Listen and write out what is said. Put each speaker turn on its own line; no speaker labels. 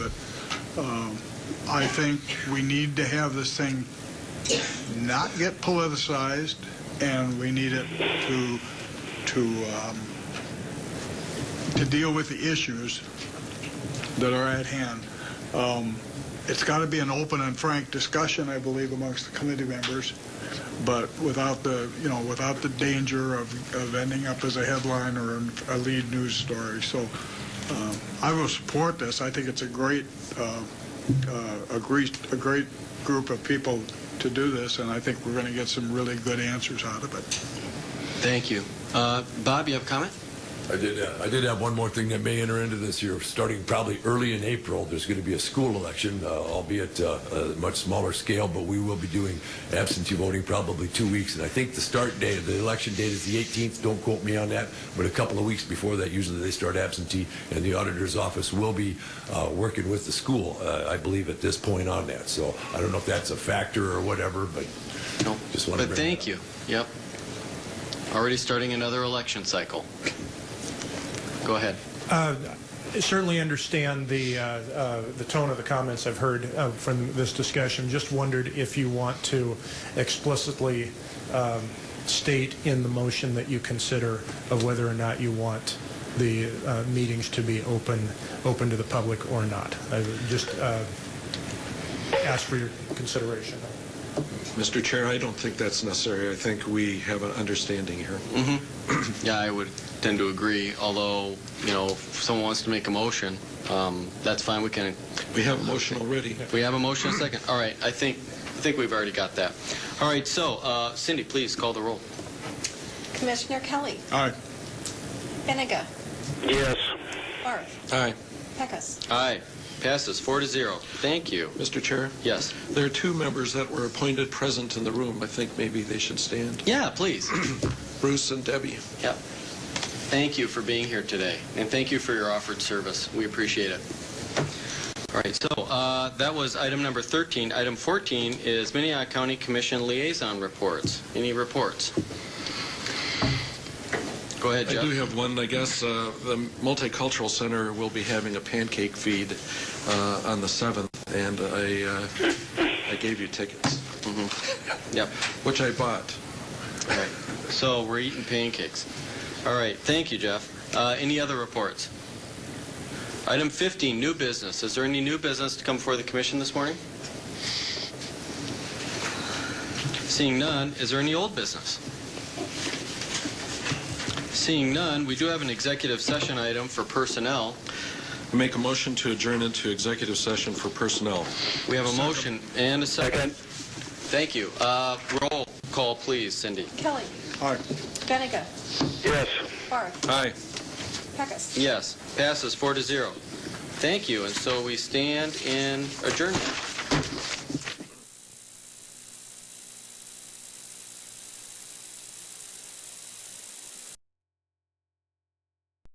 Um, I think we need to have this thing not get politicized, and we need it to, to, um, to deal with the issues that are at hand. Um, It's got to be an open and frank discussion, I believe, amongst the committee members, but without the, you know, without the danger of, of ending up as a headline or a lead news story. So um, I will support this. I think it's a great, uh, uh, a great, a great group of people to do this, and I think we're going to get some really good answers out of it.
Thank you. Uh, Bob, you have a comment?
I did. Uh, I did have one more thing that may enter into this year. Starting probably early in April, there's going to be a school election, uh, albeit uh, a much smaller scale. But we will be doing absentee voting probably two weeks, and I think the start date of the election date is the 18th. Don't quote me on that, but a couple of weeks before that, usually they start absentee, and the auditor's office will be uh, working with the school, uh, I believe, at this point on that. So I don't know if that's a factor or whatever, but
No.
Just wanted to
But
bring
thank
that
you. Yep. Already starting another election cycle. Go ahead.
Uh, Certainly understand the, uh, uh, the tone of the comments I've heard uh, from this discussion. Just wondered if you want to explicitly um, state in the motion that you consider of whether or not you want the uh, meetings to be open, open to the public or not. I would Just uh, ask for your consideration.
Mr. Chair, I don't think that's necessary. I think we have an understanding here.
Yeah, I would tend to agree, although, you know, if someone wants to make a motion, um, that's fine, we can,
We have a motion already.
we have a motion, a second. All right, I think, I think we've already got that. All right, so uh, Cindy, please call the roll.
Commissioner Kelly.
Aye.
Benega.
Yes.
Barth.
Aye.
Pecos.
Aye, passes four to zero. Thank you.
Mr. Chair,
Yes.
there are two members that were appointed present in the room. I think maybe they should stand.
Yeah, please.
Bruce and Debbie.
Thank you for being here today, and thank you for your offered service. We appreciate it. All right, so uh, that was item number 13. Item 14 is Minnehaha County Commission liaison reports. Any reports? Go ahead,
I do
Jeff.
have one, I guess. Uh, The Multicultural Center will be having a pancake feed uh, on the 7th, and I uh, I gave you tickets.
Yep.
Which I bought.
All right. So we're eating pancakes. All right, thank you, Jeff. Uh, Any other reports? Item 15, new business. Is there any new business to come before the commission this morning? Seeing none, is there any old business? Seeing none, we do have an executive session item for personnel.
Make a motion to adjourn into executive session for personnel.
We have a motion and a second. Thank you. Uh, Roll call, please, Cindy.
Kelly.
Aye.
Benega.
Yes.
Barth.
Aye.
Pecos.
Yes, passes four to zero. Thank you, and so we stand in adjournment.